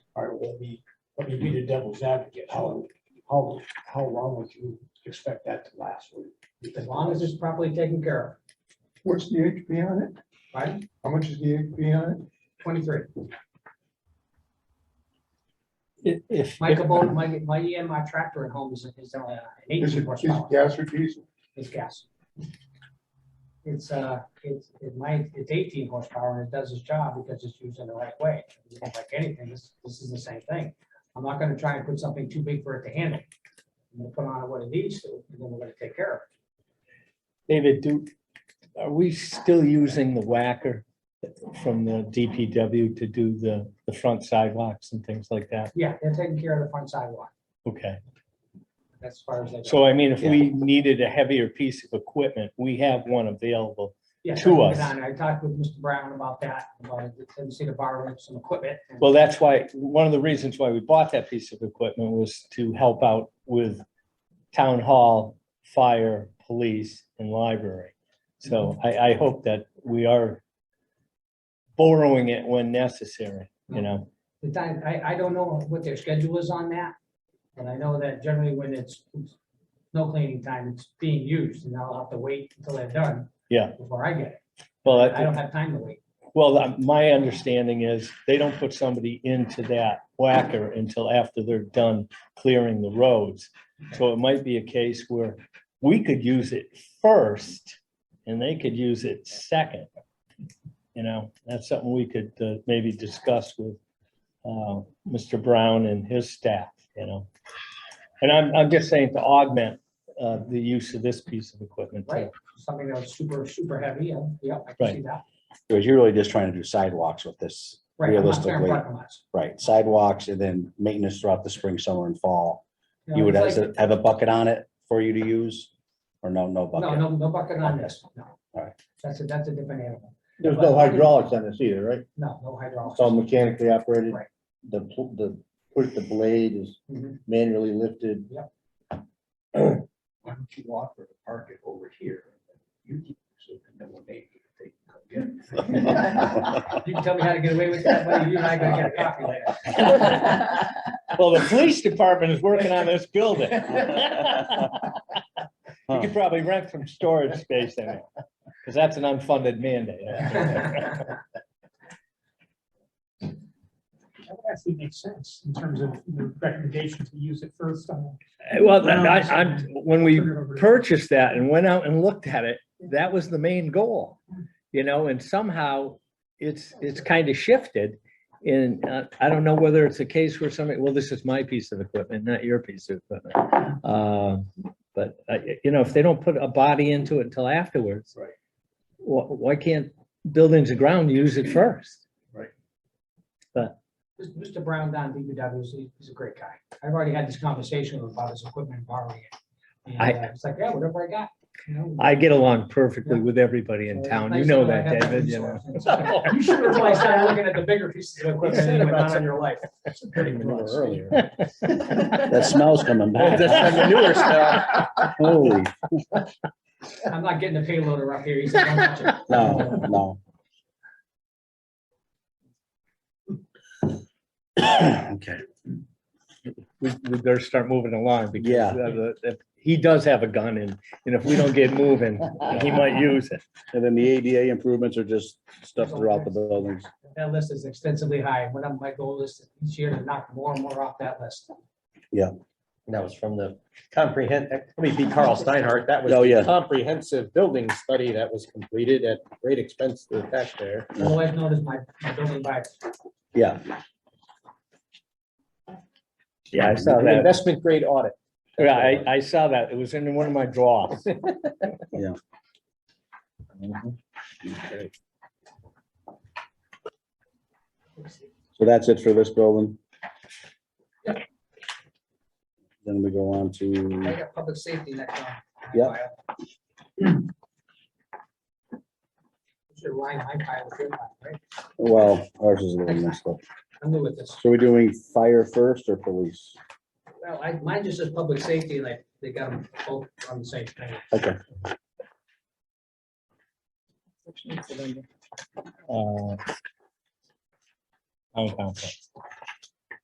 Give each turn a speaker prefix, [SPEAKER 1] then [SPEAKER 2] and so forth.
[SPEAKER 1] let me, let me be the devil's advocate, how, how, how long would you expect that to last? Would you
[SPEAKER 2] as
[SPEAKER 1] think-
[SPEAKER 2] long as it's properly taken care
[SPEAKER 3] What's the HP on it?
[SPEAKER 2] of, right?
[SPEAKER 3] How much is the HP on it?
[SPEAKER 2] Twenty-three.
[SPEAKER 4] If, if,
[SPEAKER 2] My Kubota, my, my EMI tractor at home is, is only an
[SPEAKER 3] Is
[SPEAKER 2] eighteen
[SPEAKER 3] it, is
[SPEAKER 2] horsepower.
[SPEAKER 3] it gas or diesel?
[SPEAKER 2] It's gas. It's, uh, it's, it might, it's eighteen horsepower and it does its job because it's used in the right way. It's not Like anything, this, this is the same thing. I'm not gonna try and put something too big for it to handle. I'm gonna put on what it needs to, and then we're gonna take care of it.
[SPEAKER 4] David, do, are we still using the whacker from the DPW to do the, the front sidewalks and things like that?
[SPEAKER 2] Yeah, they're taking care of the front sidewalk.
[SPEAKER 4] Okay,
[SPEAKER 2] That's as far as they go.
[SPEAKER 4] so I mean, if we needed a heavier piece of equipment, we have one available.
[SPEAKER 2] Yeah,
[SPEAKER 4] to
[SPEAKER 2] so we'll
[SPEAKER 4] us.
[SPEAKER 2] get on. I talked with Mr. Brown about that, about the tendency to borrow some equipment. and-
[SPEAKER 4] Well, that's why, one of the reasons why we bought that piece of equipment was to help out with town hall, fire, police, and library. So I, I hope that we are borrowing it when necessary, you know?
[SPEAKER 2] The time, I, I don't know what their schedule is on that, but I know that generally when it's no cleaning time, it's being used, and I'll have to wait until they're done.
[SPEAKER 4] Yeah.
[SPEAKER 2] Before I get
[SPEAKER 4] Well,
[SPEAKER 2] it. I
[SPEAKER 4] that-
[SPEAKER 2] don't have time to wait.
[SPEAKER 4] well, um, my understanding is they don't put somebody into that whacker until after they're done clearing the roads. So it might be a case where we could use it first and they could use it second. You know, that's something we could uh, maybe discuss with uh, Mr. Brown and his staff, you know? And I'm, I'm just saying to augment uh, the use of this piece of equipment too.
[SPEAKER 2] Right. Something that's super, super heavy, yeah, yeah, I can see that.
[SPEAKER 5] Because you're really just trying to do sidewalks with this,
[SPEAKER 2] Right. I'm not clearing
[SPEAKER 5] Realistically,
[SPEAKER 2] parking lots.
[SPEAKER 5] right? Sidewalks and then maintenance throughout the spring, summer and fall.
[SPEAKER 2] You know,
[SPEAKER 5] You would
[SPEAKER 2] it's like-
[SPEAKER 5] have have a bucket on it for you to use or no, no
[SPEAKER 2] No,
[SPEAKER 5] bucket?
[SPEAKER 2] no, no bucket on this, no.
[SPEAKER 5] Alright.
[SPEAKER 2] That's a, that's a different animal.
[SPEAKER 3] There's no hydraulics on this either, right?
[SPEAKER 2] No, no hydraulics.
[SPEAKER 3] It's all mechanically operated.
[SPEAKER 2] Right.
[SPEAKER 3] The, pl- the, push the blade is
[SPEAKER 2] Mhm.
[SPEAKER 3] manually lifted.
[SPEAKER 1] Why don't you offer to park it over here? You keep, so no one may take, get it.
[SPEAKER 2] You can tell me how to get away with that, buddy, you and I gotta get a coffee later.
[SPEAKER 4] Well, the police department is working on this building. You could probably rent some storage space in it, because that's an unfunded mandate.
[SPEAKER 6] That would actually make sense in terms of the recommendation to use it first on.
[SPEAKER 4] Well, I, I'm, when we
[SPEAKER 6] turn it over to-
[SPEAKER 4] purchased that and went out and looked at it, that was the main goal. You know, and somehow it's, it's kind of shifted. And uh, I don't know whether it's a case where somebody, well, this is my piece of equipment, not your piece of equipment. Uh, But, uh, y- you know, if they don't put a body into it until afterwards.
[SPEAKER 1] Right.
[SPEAKER 4] Why, why can't buildings and ground use it first?
[SPEAKER 2] Mr. Brown down at DPW, is- he's a great guy. I've already had this conversation with him about his equipment and borrowing it. And
[SPEAKER 4] I-
[SPEAKER 2] uh, it's like, yeah, whatever I got, you know.
[SPEAKER 4] I get along perfectly with everybody in town. You know that, David, you know.
[SPEAKER 2] You should have really started looking at the bigger pieces of equipment
[SPEAKER 3] Said
[SPEAKER 2] and
[SPEAKER 3] about
[SPEAKER 2] not on your life.
[SPEAKER 5] That smell's coming back.
[SPEAKER 4] That's the newer stuff.
[SPEAKER 5] Holy,
[SPEAKER 2] I'm not getting a payloader up here. He's like, "Don't touch it."
[SPEAKER 5] no, no. Okay,
[SPEAKER 4] we, we better start moving along because
[SPEAKER 5] Yeah.
[SPEAKER 4] uh, the- if- he does have a gun and, and if we don't get moving, he might use it.
[SPEAKER 5] and then the ADA improvements are just stuff throughout the buildings.
[SPEAKER 2] That list is extensively high. One of my goal is each year to knock more and more off that list.
[SPEAKER 7] That was from the comprehend, that may be Carl Steinhardt. That was
[SPEAKER 5] Oh, yeah.
[SPEAKER 7] the comprehensive building study that was completed at great expense to the taxpayer.
[SPEAKER 2] Otherwise known as my my building by
[SPEAKER 5] Yeah,
[SPEAKER 4] Yeah, I saw
[SPEAKER 7] An
[SPEAKER 4] that.
[SPEAKER 7] Investment grade audit.
[SPEAKER 4] Yeah, I, I saw that. It was in one of my drawers.
[SPEAKER 5] so that's it for this building. Then we go on
[SPEAKER 2] I
[SPEAKER 5] to,
[SPEAKER 2] got public safety next time.
[SPEAKER 5] Yep.
[SPEAKER 2] Should line my pile with your pile, right?
[SPEAKER 5] well, ours is a little messed up.
[SPEAKER 2] I'm new with this.
[SPEAKER 5] So we're doing fire first or police?
[SPEAKER 2] Well, I, mine just says public safety, like, they got them both on the same thing.
[SPEAKER 5] Okay,
[SPEAKER 4] Uh, town council.